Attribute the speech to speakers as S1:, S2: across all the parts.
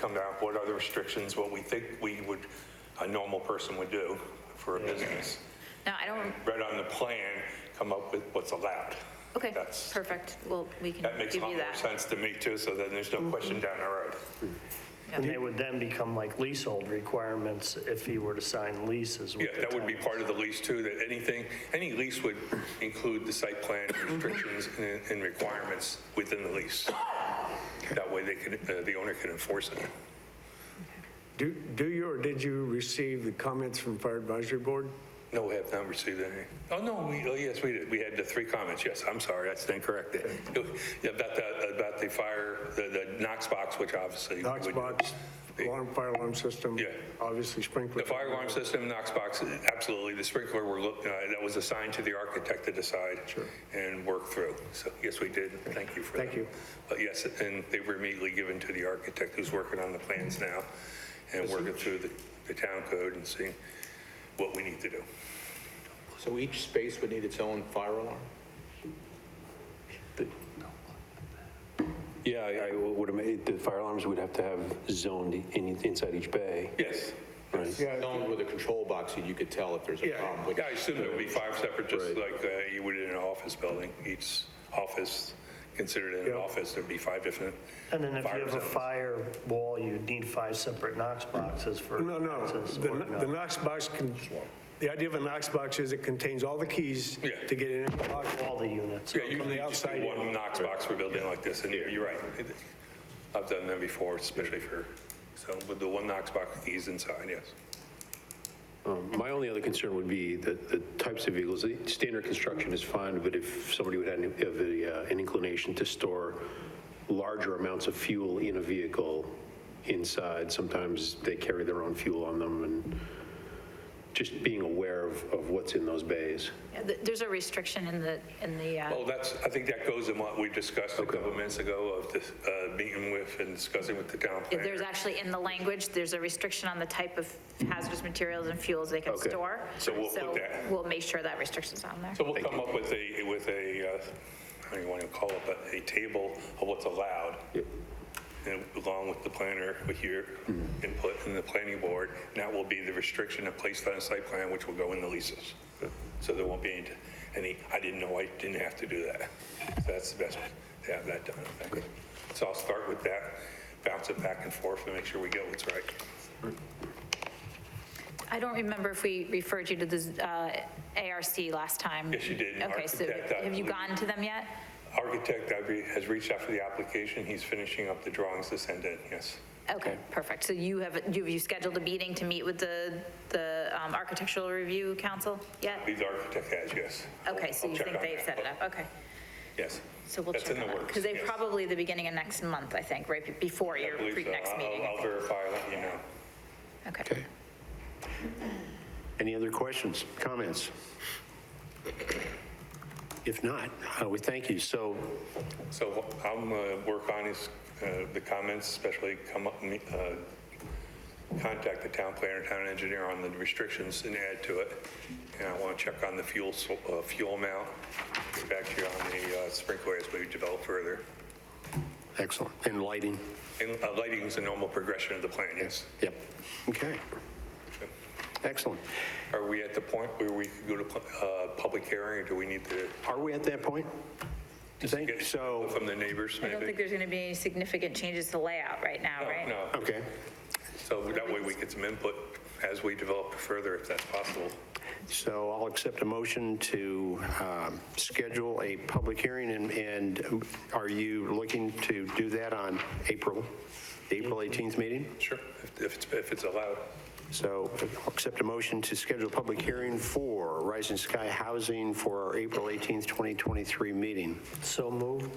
S1: come down, what are the restrictions, what we think we would, a normal person would do for a business.
S2: Now, I don't,
S1: Right on the plan, come up with what's allowed.
S2: okay,
S1: That's-
S2: perfect. Well, we can
S1: That
S2: give
S1: makes a lot
S2: you
S1: more
S2: that. Mm-hmm.
S1: sense to me too, so then there's no question down the road.
S3: And they would then become like leasehold requirements if he were to sign leases with
S1: Yeah,
S3: the
S1: that would be
S3: town.
S1: part of the lease too, that anything, any lease would include the site plan
S2: Mm-hmm.
S1: restrictions and- and requirements within the lease. That way they could, uh, the owner can enforce it.
S4: Do, do you or did you receive the comments from Fire Advisory Board?
S1: No, we have not received any. Oh, no, we, oh, yes, we did. We had the three comments, yes. I'm sorry, that's incorrect. Yeah, About the, about the fire, the, the Knox box, which obviously.
S4: Knox
S1: would-
S4: box, alarm, fire alarm system?
S1: Yeah.
S4: Obviously sprinkler.
S1: The fire alarm system, Knox box, absolutely. The sprinkler, we're, look- uh, that was assigned to the architect to decide and work through. So, yes, we did. Thank you for that.
S4: Thank you.
S1: But yes, and they were immediately given to the architect who's working on the plans now and working through the, the town code and seeing what we need to do.
S5: So each space would need its own fire alarm?
S6: Yeah, I I would, ima- the fire alarms would have to have zoned in- inside each bay,
S1: Yes.
S6: right?
S5: Zoned with a control box, so you could tell if there's a problem. with-
S1: Uh, Yeah, I assume there would be five separate, just like uh, you would in an office building. Each office considered an office, there'd be five different.
S3: And then if you
S1: fire
S3: have a
S1: zones.
S3: fire wall, you'd need five separate Knox boxes for.
S4: No, no,
S3: access
S4: the,
S3: or
S4: the Knox box, con- the idea of a Knox box is it contains all the keys
S1: Yeah.
S4: to get in and out.
S3: All the units.
S1: Yeah, usually just
S4: outside
S1: do
S4: in.
S1: one Knox box for a building like this, and you're right. It- I've done them before, especially for, so with the one Knox box keys inside, yes.
S6: Um, My only other concern would be the, the types of vehicles, The standard construction is fine, but if somebody would have an- have a, uh, an inclination to store larger amounts of fuel in a vehicle inside, sometimes they carry their own fuel on them, and just being aware of, of what's in those bays.
S2: Yeah, th- There's a restriction in the, in the, uh,
S1: Well, that's, I think that goes in what we discussed a couple minutes ago of this uh, meeting with and discussing with the town planner.
S2: there's actually in the language, there's a restriction on the type of hazardous materials and fuels they can
S6: Okay.
S2: store.
S1: So we'll put that-
S2: we'll make sure that restriction's on there.
S1: So we'll come up with a, with a, uh, I don't even want to call it, but a table of what's allowed, and along with the planner, with your input and the planning board, and that will be the restriction of placed on a site plan, which will go in the leases. So there won't be any, any, I didn't know I didn't have to do that. So That's the best, to have that done, I think. So I'll start with that, bounce it back and forth, and make sure we get what's right.
S2: I don't remember if we referred you to the uh, ARC last time.
S1: Yes, you did, and
S2: Okay, so
S1: architect, I
S2: have you
S1: believe.
S2: gone to them yet?
S1: Architect I've re- has reached out for the application, he's finishing up the drawings to send in, yes.
S2: Okay, perfect. So you have, you- have you scheduled a meeting to meet with the, the um, Architectural Review Council yet?
S1: The architect has, yes.
S2: Okay, so
S1: I'll
S2: you
S1: check
S2: think
S1: on
S2: they've
S1: that.
S2: set it up, okay.
S1: Yes.
S2: So we'll check
S1: That's in
S2: on
S1: the
S2: that.
S1: works.
S2: Because they
S1: yes.
S2: probably the beginning of next month, I think, right, be- before
S1: I
S2: your
S1: believe
S2: pre-
S1: so.
S2: next
S1: I'll-
S2: meeting.
S1: I'll verify, let you know.
S2: Okay.
S7: Any other questions, comments? If not, uh, we thank you. So
S1: So I'm, uh, work on is, uh, the comments, especially come up, and, uh, contact the town planner, town engineer on the restrictions and add to it. And I want to check on the fuel, so- uh, fuel amount, get back to you on the uh, sprinkler as we develop further.
S7: Excellent. And lighting?
S1: And uh, lighting is a normal progression of the plan, yes.
S7: Yep. Okay. Excellent.
S1: Are we at the point where we could go to, pu- uh, public hearing or do we need to
S7: Are we at that point? Thank
S1: get
S7: you. So,
S1: from the neighbors
S2: I
S1: maybe?
S2: don't think there's going to be any significant changes to layout right now, right?
S1: No, no.
S7: okay.
S1: So that way we get some input as we develop further, if that's possible.
S7: So I'll accept a motion to um, schedule a public hearing. And- And are you looking to do that on April, the April 18th meeting?
S1: Sure. If if it's, if it's allowed.
S7: So I'll accept a motion to schedule a public hearing for Rising Sky Housing for our April 18th, 2023 meeting.
S3: So moved.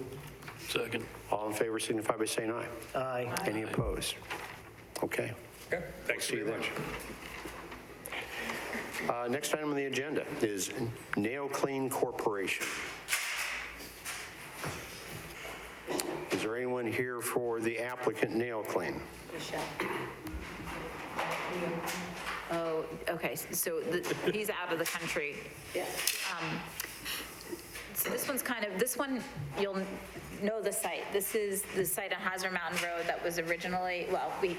S7: Second. All in favor signify by saying aye.
S3: Aye.
S7: Any opposed? Okay.
S1: Okay, thanks
S7: See you
S1: very
S7: then.
S1: much.
S7: Uh, Next item on the agenda is Nail Clean Corporation. Is there anyone here for the applicant Nail Clean?
S2: Oh, okay, Um, so the- he's out of the country. Yeah. this one's kind of, this one, you'll know the site. This is the site on Hosner Mountain Road that was originally, well, we